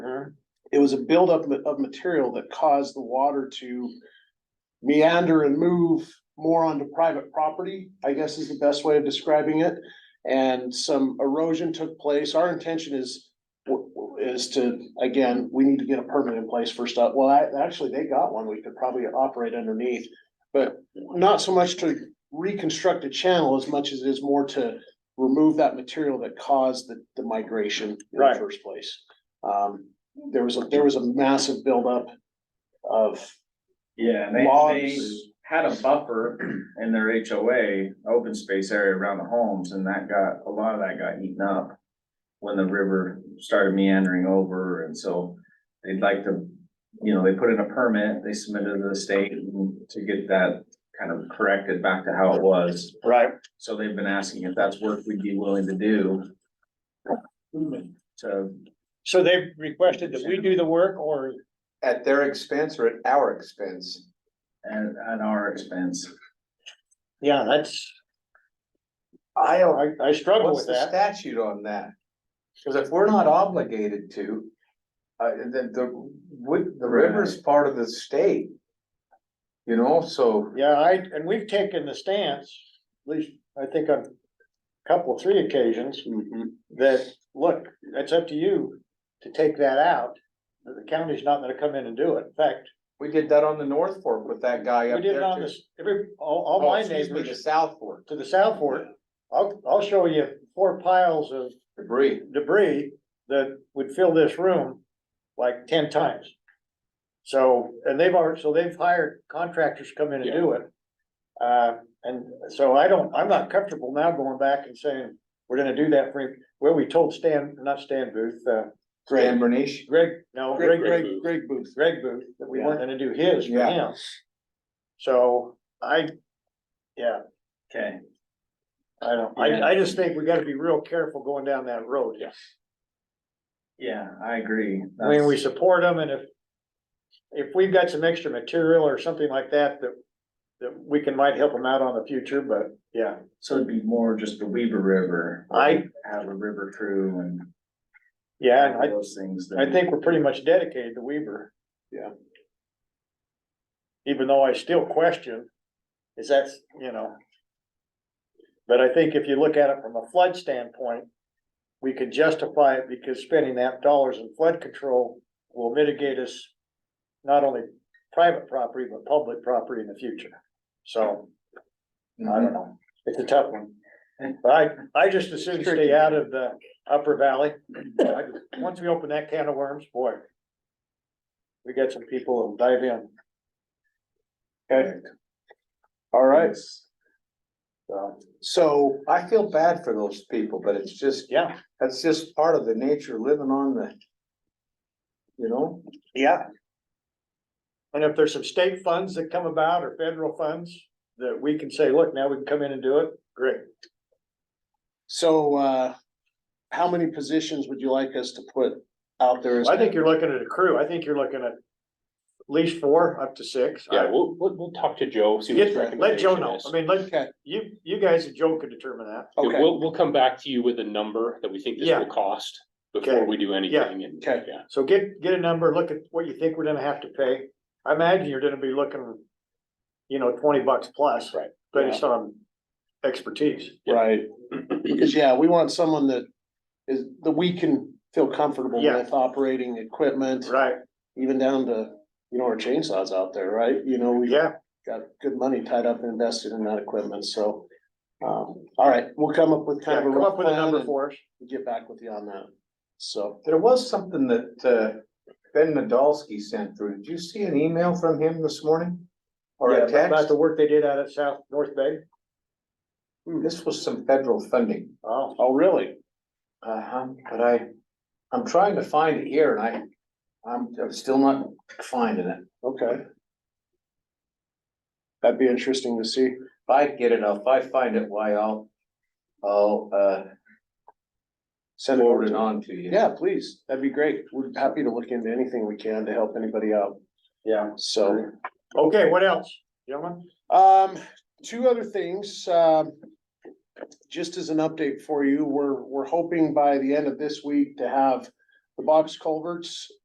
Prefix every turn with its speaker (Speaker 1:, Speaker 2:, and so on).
Speaker 1: was a buildup ma- of material that caused the water to meander and move more onto private property, I guess is the best way of describing it. And some erosion took place. Our intention is w- w- is to, again, we need to get a permit in place first up. Well, I, actually, they got one. We could probably operate underneath. But not so much to reconstruct a channel as much as it is more to remove that material that caused the, the migration in the
Speaker 2: Right.
Speaker 1: first place. Um, there was, a there was a massive buildup of
Speaker 2: Yeah, and they, they
Speaker 1: logs.
Speaker 2: had a buffer in their HOA, open space area around the homes, and that got, a lot of that got eaten up. When the river started meandering over, and so they'd like to, you know, they put in a permit, they submitted to the state to get that. Kind of corrected back to how it was,
Speaker 1: Right.
Speaker 2: so they've been asking if that's work we'd be willing to do to.
Speaker 3: So they've requested that we do the work or
Speaker 4: At their expense or at our expense?
Speaker 2: And at our expense,
Speaker 3: Yeah, that's,
Speaker 4: I
Speaker 3: I, I struggle
Speaker 4: What's
Speaker 3: with
Speaker 4: the
Speaker 3: that.
Speaker 4: statute on that? Cause if we're not obligated to, uh, then the, would, the river's part of the state. You know, so,
Speaker 3: Yeah, I, and we've taken the stance, at least I think on a couple, three occasions,
Speaker 4: Mm-hmm.
Speaker 3: that, look, that's up to you to take that out. The county's not gonna come in and do it. In fact,
Speaker 4: we did that on the North Fork with that guy
Speaker 3: we
Speaker 4: up
Speaker 3: did
Speaker 4: there.
Speaker 3: it on
Speaker 4: too.
Speaker 3: this, every, all, all
Speaker 4: Oh,
Speaker 3: my
Speaker 4: excuse me, The
Speaker 3: neighbors
Speaker 4: South Fork,
Speaker 3: to the south fork. I'll, I'll show you four piles of
Speaker 4: debris.
Speaker 3: debris that would fill this room like ten times. So, and they've already, so they've hired contractors to come in and do it. Uh, and so I don't, I'm not comfortable now going back and saying, we're gonna do that for, well, we told Stan, not Stan Booth, uh,
Speaker 4: Dan Bernish.
Speaker 3: Greg, no,
Speaker 1: Greg, Greg,
Speaker 3: Greg, Greg,
Speaker 1: Greg Booth.
Speaker 3: Greg Booth, that we weren't gonna do his for
Speaker 4: Yeah.
Speaker 3: him. So I, yeah,
Speaker 2: okay,
Speaker 3: I don't, I, I just think we gotta be real careful going down that road. Yeah.
Speaker 2: yeah, I agree.
Speaker 3: I mean, we support them and if. If we've got some extra material or something like that, that, that we can might help them out on the future, but yeah,
Speaker 2: So it'd be more just the Weaver River.
Speaker 3: I-
Speaker 2: Have a river crew and.
Speaker 3: yeah, and
Speaker 2: Those things. that-
Speaker 3: I, I think we're pretty much dedicated to Weaver.
Speaker 1: Yeah.
Speaker 3: Even though I still question, is that's, you know. But I think if you look at it from a flood standpoint, we can justify it because spending that dollars in flood control will mitigate us. Not only private property, but public property in the future, so. I don't know, it's a tough one. But I, I just assume stay out of the upper valley. I- Once we open that can of worms, boy. We got some people that'll dive in,
Speaker 1: Okay. All right.
Speaker 3: so,
Speaker 1: So
Speaker 4: I feel bad for those people, but it's just,
Speaker 3: yeah,
Speaker 4: that's just part of the nature of living on the. You know,
Speaker 3: yeah. And if there's some state funds that come about or federal funds that we can say, look, now we can come in and do it, great.
Speaker 1: So, uh, how many positions would you like us to put out there? as-
Speaker 3: I think you're looking at a crew, I think you're looking at at least four, up to six.
Speaker 5: Yeah, we'll, we'll, we'll talk to Joe, see what his
Speaker 3: Get- Let Joe
Speaker 5: recommendation
Speaker 3: know,
Speaker 5: is.
Speaker 3: I mean, let,
Speaker 1: Okay,
Speaker 3: you, you guys and Joe can determine that.
Speaker 5: Yeah,
Speaker 1: okay,
Speaker 5: We'll, we'll come back to you with a number that we think this
Speaker 3: Yeah.
Speaker 5: will cost
Speaker 3: Okay.
Speaker 5: before we do anything and,
Speaker 1: Okay.
Speaker 5: yeah.
Speaker 3: So get, get a number, look at what you think we're gonna have to pay. I imagine you're gonna be looking, you know, twenty bucks plus.
Speaker 5: Right.
Speaker 3: Based on expertise.
Speaker 1: right. Because, yeah, we want someone that is, that we can feel comfortable
Speaker 3: Yeah.
Speaker 1: with operating equipment,
Speaker 3: Right,
Speaker 1: even down to, you know, our chainsaws out there, right? You know, we've
Speaker 3: yeah,
Speaker 1: got good money tied up and invested in that equipment, so. Um, all right, we'll come up with kind of
Speaker 3: yeah,
Speaker 1: a
Speaker 3: come
Speaker 1: rough
Speaker 3: up with a
Speaker 1: plan
Speaker 3: number
Speaker 1: and
Speaker 3: for us.
Speaker 1: get back with you on that. So,
Speaker 4: there was something that, uh, Ben Nadolsky sent through. Did you see an email from him this morning? Or
Speaker 3: Yeah,
Speaker 4: a
Speaker 3: about- About
Speaker 4: text?
Speaker 3: the work they did out at South North Bay.
Speaker 4: This was some federal funding.
Speaker 3: Oh,
Speaker 1: oh, really?
Speaker 4: Uh-huh, but I, I'm trying to find it here and I, I'm, I'm still not finding it.
Speaker 1: Okay. That'd be interesting to see.
Speaker 4: If I get it, if I find it, why I'll, I'll, uh,
Speaker 1: Send it over
Speaker 4: forward
Speaker 1: to
Speaker 4: it on to you.
Speaker 1: Yeah, please. That'd be great. We're happy to look into anything we can to help anybody out.
Speaker 3: yeah.
Speaker 1: So,
Speaker 3: Okay, what else, gentlemen?
Speaker 1: um, two other things, um. Just as an update for you, we're, we're hoping by the end of this week to have the box culverts